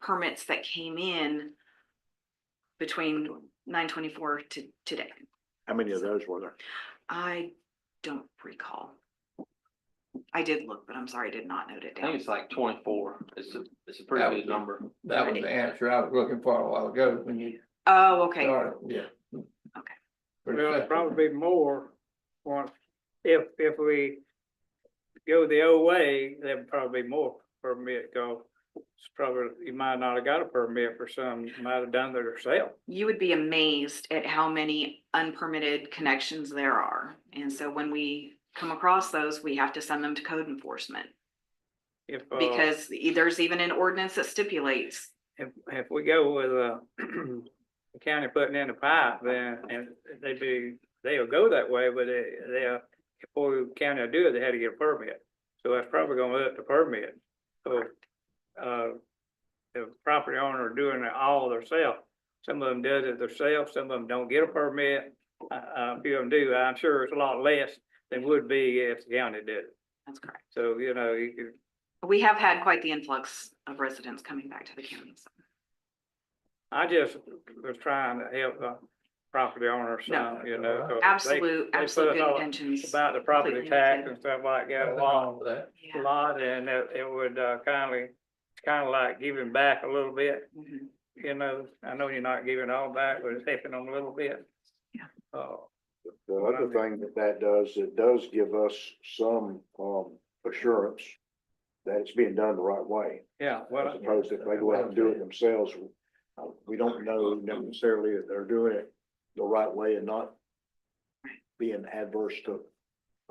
permits that came in between nine twenty-four to today. How many of those were there? I don't recall. I did look, but I'm sorry, I did not note it I think down. it's like twenty-four. It's a, it's a pretty good number. That was the answer I was looking for a while ago when you Oh, okay. started, yeah. Okay. Well, it'd probably be more once, if, if we go the old way, there'd probably be more permit go. It's probably, you might not have got a permit for some, you might have done it yourself. You would be amazed at how many unpermitted connections there are. And so when we come across those, we have to send them to code enforcement. If, uh, Because e- there's even an ordinance that stipulates, if, if we go with, uh, the county putting in a pipe, then, and they be, they'll go that way, but they, they'll, before the county will do it, they had to get a permit. So that's probably gonna let the permit. So, uh, the property owner doing it all themselves. Some of them does it themselves, some of them don't get a permit. Uh, uh, a few of them do. I'm sure it's a lot less than would be if the county did it. that's correct. So, you know, you could We have had quite the influx of residents coming back to the county. so. I just was trying to help the property owners No. some, you know. 'cause they- Absolute, they absolute put good out intentions. About the property completely understand. tax and stuff like that, a lot, Along with that, a Yeah. lot, and it, it would, uh, kindly, kind of like giving back a little bit, Mhm. you know. I know you're not giving all back, but it's helping them a little bit. Yeah. Uh, The other thing that that does, it does give us some, um, assurance that it's being done the right way. yeah, As well, opposed to if they go out and do it themselves, uh, we don't know necessarily that they're doing it the right way and not being adverse to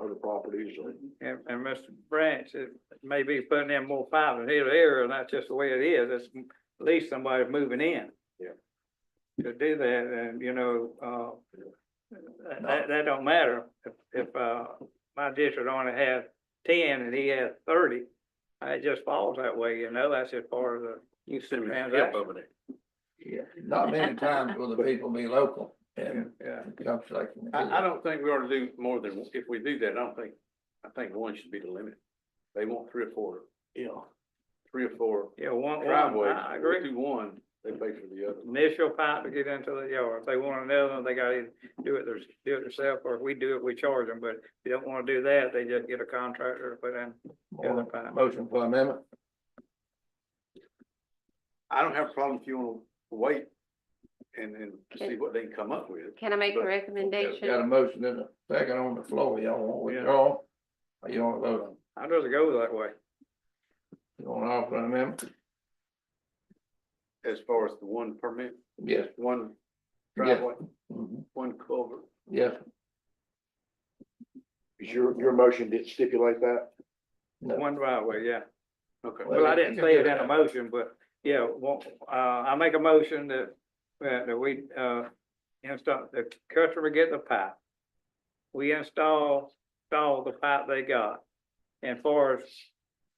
other properties or. and, and Mr. Branch, it may be putting in more fiber here or there, and that's just the way it is. It's m- at least somebody's moving in. Yeah. To do that, and you know, uh, that- No. that, that don't matter. If, if, uh, my district only has ten and he has thirty, it just falls that way, you know, that's just part of the. You can send me a Transaction. tip over there. yeah, not many times will the people be local and Yeah. jumps like. I, I don't think we ought to do more than, if we do that, I don't think, I think one should be the limit. They want three or four, Yeah. three or four Yeah, one, one, driveways. I I We agree. Do one, they pay for the other. Initial pipe to get into the yard. If they want another one, they gotta either do it, their- do it themselves, or if we do it, we charge them. But if you don't wanna do that, they just get a contractor to put in the other pipe. Motion for amendment, I don't have a problem if you wanna wait and, and see what they can come up with. Can I make a But- got a recommendation? motion in a second on the floor, y'all want withdraw? Or you want to vote on, I'd rather go that way. you want to offer an amendment? As far as the one permit, Yes. one Yes. driveway, Mhm. one culvert. Yes, Is your, your motion did stipulate that? One driveway, yeah. Okay. Well, I didn't say it in a Yeah. motion, but yeah, well, uh, I make a motion that, that that we, uh, install, the customer get the pipe. We install, install the pipe they got. And for us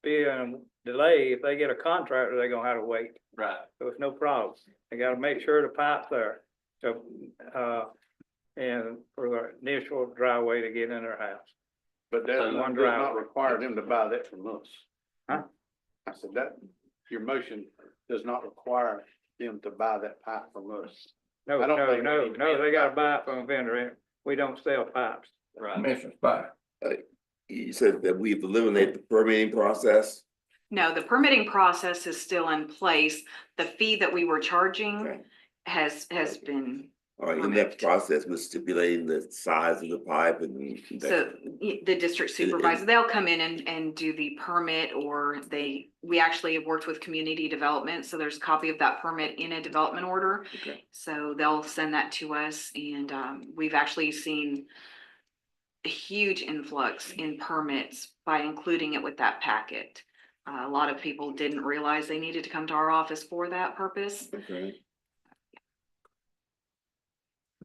being delayed, if they get a contractor, they are gonna have to wait. Right. So it's no problem. They gotta make sure the pipe's there. So, uh, and for the initial driveway to get in their house. But that does So not one driveway. require them to buy that from us. Huh? I said that, your motion does not require them to buy that pipe from us. No, I no, don't think they no, need to be no, in they a gotta buy it from a vendor. and We don't sell pipes. Commissioner Spire, You said that we've eliminated the permitting process. No, the permitting process is still in place. The fee that we were charging Okay. has, has been All right, in that Correct. process, we're stipulating the size of the pipe and. So y- the district And- and- supervisor, they'll come in and, and do the permit or they, we actually have worked with community development, so there's a copy of that permit in a development order. Okay. So they'll send that to us and, um, we've actually seen a huge influx in permits by including it with that packet. Uh, A lot of people didn't realize they needed to come to our office for that purpose. Okay,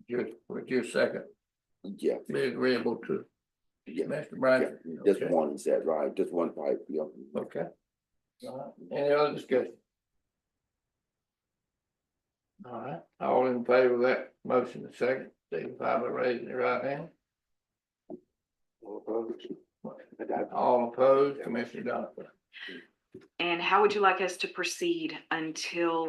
your, with your second, yeah, be agreeable to yeah, Mr. yeah, Bryant. just Okay. one, is that right? Just one pipe, yeah. Okay. All right. Uh, Any other discussion? All right, all in favor of that motion, the second, signify by raising your right hand. All opposed? All opposed, Commissioner Donovan. And how would you like us to proceed until